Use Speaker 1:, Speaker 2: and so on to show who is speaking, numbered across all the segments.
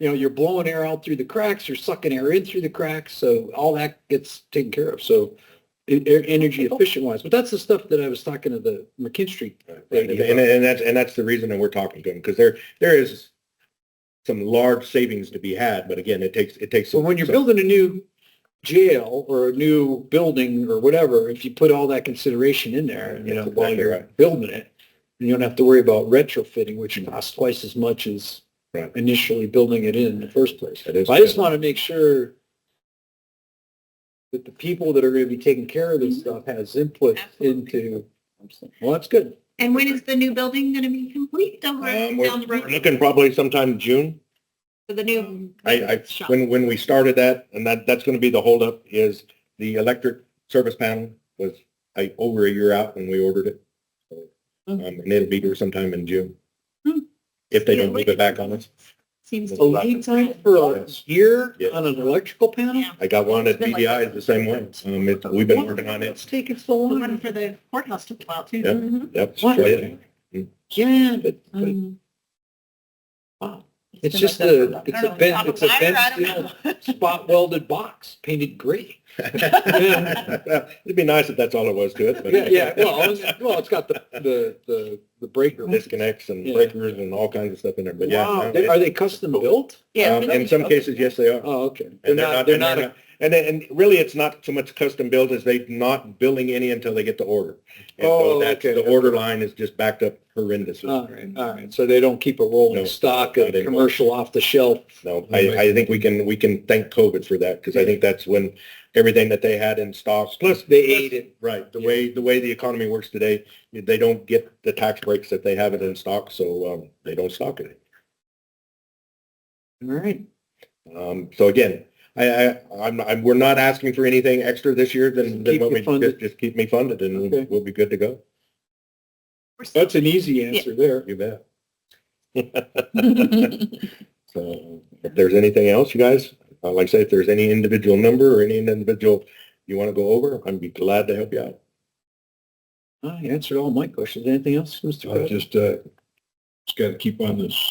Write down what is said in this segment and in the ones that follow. Speaker 1: you know, you're blowing air out through the cracks, you're sucking air in through the cracks, so all that gets taken care of. So e- e- energy efficient wise, but that's the stuff that I was talking to the McKinstry.
Speaker 2: Right, And, and- and that's, and that's the reason that we're talking to them, because there, there is some large savings to be had, but again, it takes, it takes.
Speaker 1: So when you're
Speaker 2: some-
Speaker 1: building a new jail or a new building or whatever, if you put all that consideration in there, you know,
Speaker 2: That's
Speaker 1: while
Speaker 2: exactly
Speaker 1: you're
Speaker 2: right. Mm-hmm.
Speaker 1: building it, you don't have to worry about retrofitting, which costs twice as much as
Speaker 2: Right.
Speaker 1: initially building it in in the first place.
Speaker 2: That is
Speaker 1: So I just
Speaker 2: true.
Speaker 1: want to make sure that the people that are going to be taking care of this stuff has input
Speaker 3: Mm-hmm. Absolutely.
Speaker 1: into, well, that's good.
Speaker 3: And when is the new building going to be complete down
Speaker 2: Um,
Speaker 3: the-
Speaker 2: we're
Speaker 3: down the
Speaker 2: we're
Speaker 3: road
Speaker 2: looking probably sometime June.
Speaker 3: for the new?
Speaker 2: I, I,
Speaker 3: shop?
Speaker 2: when, when we started that, and that, that's going to be the holdup, is the electric service panel was like over a year out when we ordered it. So, Um, and it'll be here sometime in June.
Speaker 3: Hmm.
Speaker 2: If they don't
Speaker 3: Yeah,
Speaker 2: move it back on us.
Speaker 3: Seems
Speaker 1: A lead time for a year
Speaker 2: Yeah.
Speaker 1: on an electrical panel?
Speaker 3: Yeah.
Speaker 2: I got one at
Speaker 3: It's been like-
Speaker 2: BDI, it's the same way. Um, it's, we've been working on it.
Speaker 1: It's taking so
Speaker 3: The
Speaker 1: long.
Speaker 3: one for the courthouse took a while too.
Speaker 2: Yeah.
Speaker 3: Mhm.
Speaker 2: Yep.
Speaker 1: What?
Speaker 2: straight
Speaker 1: Yeah, but, but
Speaker 3: Um,
Speaker 1: Wow.
Speaker 3: been
Speaker 1: It's just
Speaker 3: like that
Speaker 1: a-
Speaker 3: for- I
Speaker 1: it's
Speaker 3: don't
Speaker 1: a
Speaker 3: know, it's
Speaker 1: bent-
Speaker 3: top
Speaker 1: it's a
Speaker 3: of wire,
Speaker 1: bent
Speaker 3: I don't know.
Speaker 1: spot welded box painted gray.
Speaker 2: in. It'd be nice if that's all it was to it. but-
Speaker 1: Yeah, yeah, well, it's- well, it's got the, the, the, the breaker.
Speaker 2: disconnects and
Speaker 1: Yeah.
Speaker 2: breakers and all kinds of stuff in there, but yeah.
Speaker 1: Wow,
Speaker 2: no,
Speaker 1: they-
Speaker 2: it-
Speaker 1: are they custom built?
Speaker 3: Yeah.
Speaker 2: um, In some cases, yes, they are.
Speaker 1: Oh, okay.
Speaker 2: And they're not,
Speaker 1: they're
Speaker 2: and they're
Speaker 1: not,
Speaker 2: not, and, then- and really, it's not so much custom built as they not billing any until they get the order. And so
Speaker 1: Oh,
Speaker 2: that's-
Speaker 1: okay. Uh,
Speaker 2: The order line is just backed up horrendously.
Speaker 1: all right, all right. So they don't keep a rolling
Speaker 2: No,
Speaker 1: stock
Speaker 2: not
Speaker 1: of
Speaker 2: anymore.
Speaker 1: commercial off the shelf.
Speaker 2: No, I, I think we can, we can thank COVID for that, because I think that's when everything that they had in stock, plus.
Speaker 1: They ate it.
Speaker 2: Right, the
Speaker 1: Yeah.
Speaker 2: way, the way the economy works today, they don't get the tax breaks that they have it in stock, so, um, they don't stock it.
Speaker 1: All right.
Speaker 2: Um, so again, I, I, I'm, I'm, we're not asking for anything extra this year than, than
Speaker 1: Keep
Speaker 2: what
Speaker 1: you
Speaker 2: we,
Speaker 1: funded.
Speaker 2: just, just keep me funded and
Speaker 1: Okay.
Speaker 2: we'll, we'll be good to go.
Speaker 1: That's an easy answer there.
Speaker 2: You bet. So if there's anything else, you guys, uh, like I say, if there's any individual number or any individual you want to go over, I'd be glad to help you out.
Speaker 1: I answered all my questions. Anything else, Mr.
Speaker 4: I
Speaker 1: President?
Speaker 4: just, uh, just gotta keep on this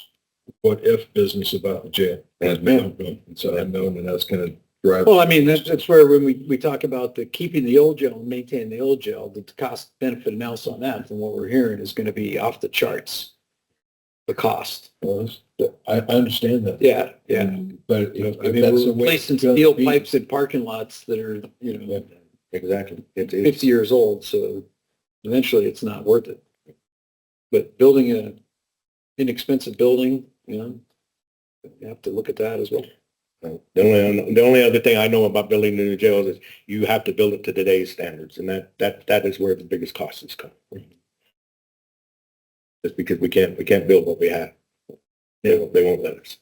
Speaker 4: what if business about the jail.
Speaker 2: Yes,
Speaker 4: It's been- It's unknown and that's gonna drive.
Speaker 1: Well, I mean, that's, that's where when we, we talk about the keeping the old jail and maintaining the old jail, the cost benefit analysis on that from what we're hearing is going to be off the charts. The cost.
Speaker 4: I, I understand that,
Speaker 1: Yeah, yeah.
Speaker 4: but if,
Speaker 1: I
Speaker 4: if
Speaker 1: mean,
Speaker 4: that's
Speaker 1: we're
Speaker 4: the way.
Speaker 1: replacing
Speaker 4: it's gonna
Speaker 1: steel
Speaker 4: be-
Speaker 1: pipes in parking lots that are, you know,
Speaker 2: Exactly. It's, it's,
Speaker 1: fifty years old, so eventually it's not worth it. But building a inexpensive building, you know, you have to look at that as well.
Speaker 2: the only, the only other thing I know about building the new jails is you have to build it to today's standards and that, that, that is where the biggest cost is coming. from. Just because we can't, we can't build what we have. They won't, they won't let us.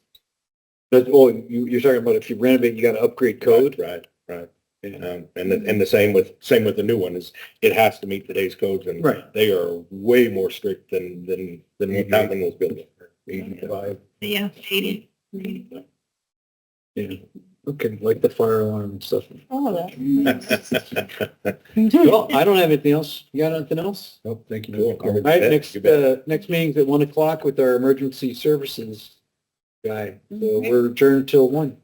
Speaker 1: But, oh, you, you're talking about if you renovate, you got to upgrade code?
Speaker 2: Right, right.
Speaker 1: Yeah.
Speaker 2: Um, and, the- and the same with, same with the new one is it has to meet today's codes and
Speaker 1: Right.
Speaker 2: they are way more strict than, than, than what that one was built.
Speaker 4: Eighty-five.
Speaker 3: Yeah, eighty.
Speaker 1: Yeah, okay, like the fire alarm and stuff.
Speaker 3: All of
Speaker 1: Well, I don't have anything else. You got anything else?
Speaker 4: Nope, thank you.
Speaker 2: Cool.
Speaker 1: All right,
Speaker 2: Yeah,
Speaker 1: next,
Speaker 2: you bet.
Speaker 1: uh, next meeting's at one o'clock with our emergency services guy. So
Speaker 3: Okay.
Speaker 1: we're adjourned till one.